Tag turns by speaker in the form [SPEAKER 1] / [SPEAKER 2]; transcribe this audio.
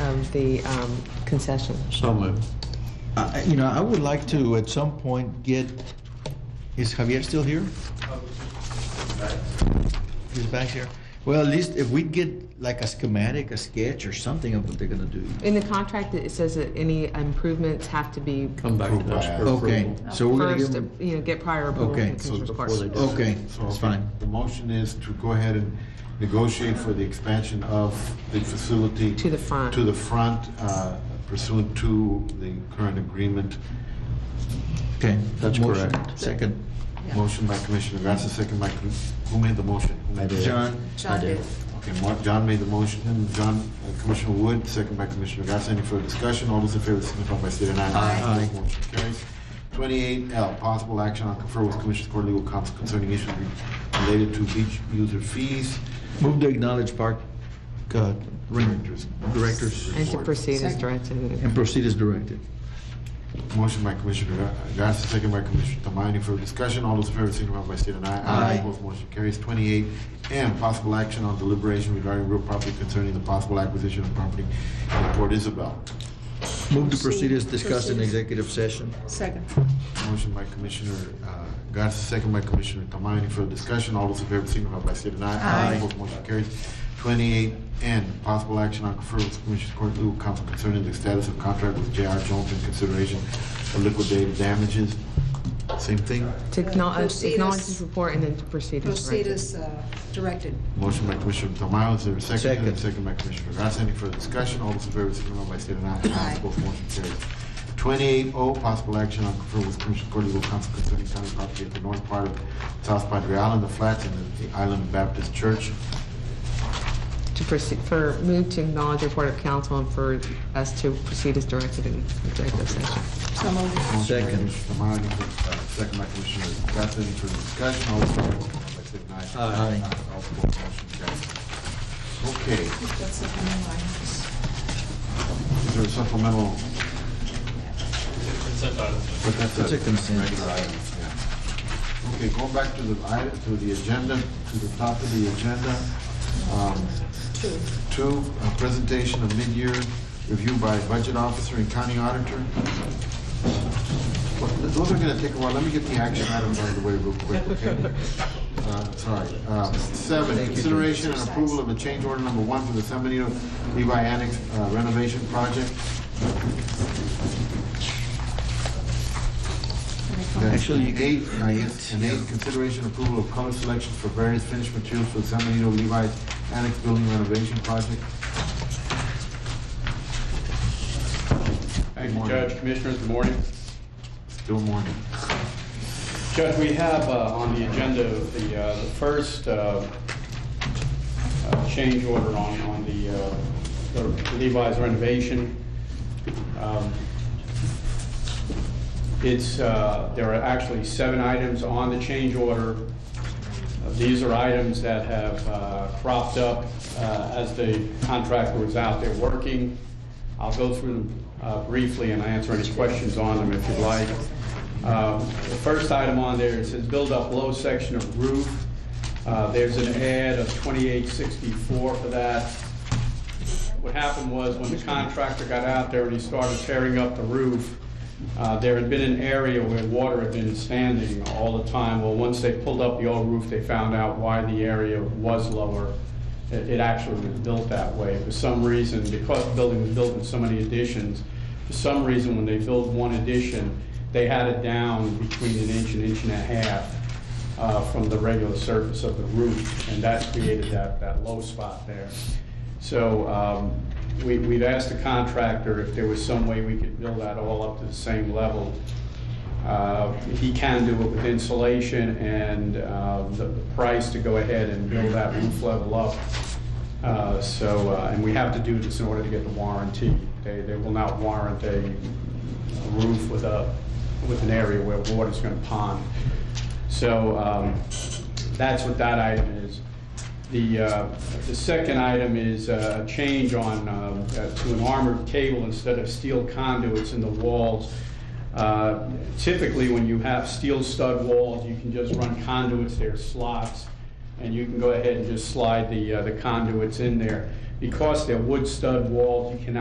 [SPEAKER 1] of the um, concession.
[SPEAKER 2] So moved.
[SPEAKER 3] I- Uh, You know, I would like to, at some point, get, is Javier still here? He's back here. Well, at least if we get like a schematic, a sketch or something of what they're gonna do.
[SPEAKER 1] In the contract, it says that any improvements have to be
[SPEAKER 2] Come back to us for
[SPEAKER 3] Okay,
[SPEAKER 2] approval.
[SPEAKER 3] so we're gonna give
[SPEAKER 1] first,
[SPEAKER 3] them,
[SPEAKER 1] you know, get prior approval
[SPEAKER 3] Okay.
[SPEAKER 1] from the
[SPEAKER 3] So
[SPEAKER 1] Commissioner's
[SPEAKER 2] before
[SPEAKER 1] Court.
[SPEAKER 2] they do-
[SPEAKER 3] okay,
[SPEAKER 4] So,
[SPEAKER 3] that's
[SPEAKER 4] okay,
[SPEAKER 3] fine.
[SPEAKER 4] The motion is to go ahead and negotiate for the expansion of the facility.
[SPEAKER 1] To the front.
[SPEAKER 4] To the front uh, pursuant to the current agreement.
[SPEAKER 3] Okay.
[SPEAKER 2] That's
[SPEAKER 3] Motion.
[SPEAKER 2] correct.
[SPEAKER 3] Second.
[SPEAKER 4] Motion by Commissioner Garcia, second by, Com- who made the motion? Who made it?
[SPEAKER 3] John?
[SPEAKER 5] John did.
[SPEAKER 4] Okay, Mar- John made the motion, and John, uh, Commissioner Wood, second by Commissioner Garcia. Any further discussion? All those in favor signify by state and I.
[SPEAKER 3] Aye.
[SPEAKER 4] Motion carries. Twenty-eight L, possible action on confer with Commissioners Court legal counsel concerning issues related to beach user fees.
[SPEAKER 3] Move to acknowledge park uh, ring-
[SPEAKER 4] Directors.
[SPEAKER 3] directors
[SPEAKER 1] And to proceed as directed.
[SPEAKER 3] and proceed as directed.
[SPEAKER 4] Motion by Commissioner Garcia, second by Commissioner Tamayo. Any further discussion? All those in favor signify by state and I.
[SPEAKER 3] Aye.
[SPEAKER 4] Opposed, motion carries. Twenty-eight M, possible action on deliberation regarding real property concerning the possible acquisition of property in Port Isabel.
[SPEAKER 3] Move to proceed as discussed in executive session.
[SPEAKER 5] Second.
[SPEAKER 4] Motion by Commissioner uh, Garcia, second by Commissioner Tamayo. Any further discussion? All those in favor signify by state and I.
[SPEAKER 3] Aye.
[SPEAKER 4] Opposed, motion carries. Twenty-eight N, possible action on confer with Commissioners Court legal counsel concerning the status of contract with J.R. Jones in consideration of liquidated damages. Same thing?
[SPEAKER 1] To acknowledge,
[SPEAKER 5] Proceed
[SPEAKER 1] acknowledge
[SPEAKER 5] as-
[SPEAKER 1] this report and then to proceed as
[SPEAKER 5] Proceed
[SPEAKER 1] directed.
[SPEAKER 5] as uh, directed.
[SPEAKER 4] Motion by Commissioner Tamayo, is there a second?
[SPEAKER 3] Second.
[SPEAKER 4] Second by Commissioner Garcia, any further discussion? All those in favor, signify by state and I.
[SPEAKER 5] Aye.
[SPEAKER 4] Both motion carries. Twenty-eight O, possible action on confer with Commissioner Court Legal Counsel concerning county property at the north part of South Padre Island, the flats, and the Island Baptist Church.
[SPEAKER 1] To proceed, for, move to acknowledge report of council and for us to proceed as directed in executive session.
[SPEAKER 5] So
[SPEAKER 4] Motion
[SPEAKER 5] moved.
[SPEAKER 4] by
[SPEAKER 3] Second.
[SPEAKER 4] Commissioner Tamayo, any further- uh, second by Commissioner Garcia, any further discussion? All those in favor, signify by state and I.
[SPEAKER 3] Aye.
[SPEAKER 4] All opposed, motion carries. Okay,
[SPEAKER 5] That's it for my line.
[SPEAKER 4] is there a supplemental? But that's a-
[SPEAKER 3] It's a consent.
[SPEAKER 4] regular item, yeah. Okay, going back to the item, to the agenda, to the top of the agenda. um, Two, a presentation of mid-year review by budget officer and county auditor. Well, Those are gonna take a while, let me get the action items out of the way real quick, okay? Uh, Sorry. Uh, Seven, consideration and approval of a change order number one for the San Benito Levi Annex uh, renovation project.
[SPEAKER 3] Actually, you can-
[SPEAKER 4] Eight, uh, yes, and eight, consideration approval of color selections for various finished materials for the San Benito Levi's Annex Building Renovation Project.
[SPEAKER 6] Thank
[SPEAKER 4] Good
[SPEAKER 6] you,
[SPEAKER 4] morning.
[SPEAKER 6] Judge, Commissioners, good morning.
[SPEAKER 4] Still morning.
[SPEAKER 6] Judge, we have uh, on the agenda the uh, the first uh, uh, change order on on the uh, the Levi's renovation. Um, It's, uh, there are actually seven items on the change order. Uh, These are items that have uh, cropped up uh, as the contractor was out there working. I'll go through them uh, briefly and answer any questions on them if you'd like. Um, The first item on there, it says build up low section of roof. Uh, There's an ad of 2864 for that. What happened was when the contractor got out there and he started tearing up the roof, uh, there had been an area where water had been standing all the time. Well, once they pulled up the old roof, they found out why the area was lower. It it actually was built that way for some reason, because the building was built in so many additions. For some reason, when they built one addition, they had it down between an inch and inch and a half uh, from the regular surface of the roof, and that created that, that low spot there. So um, we, we've asked the contractor if there was some way we could build that all up to the same level. Uh, He can do it with insulation and uh, the the price to go ahead and build that roof level up. Uh, So, uh, and we have to do this in order to get the warranty. They, they will not warrant a a roof with a, with an area where water's going to pond. So um, that's what that item is. The, uh, the second item is uh, a change on, um, uh, to an armored cable instead of steel conduits in the walls. Uh, Typically, when you have steel stud walls, you can just run conduits, there are slots, and you can go ahead and just slide the uh, the conduits in there. Because they're wood stud walls, you cannot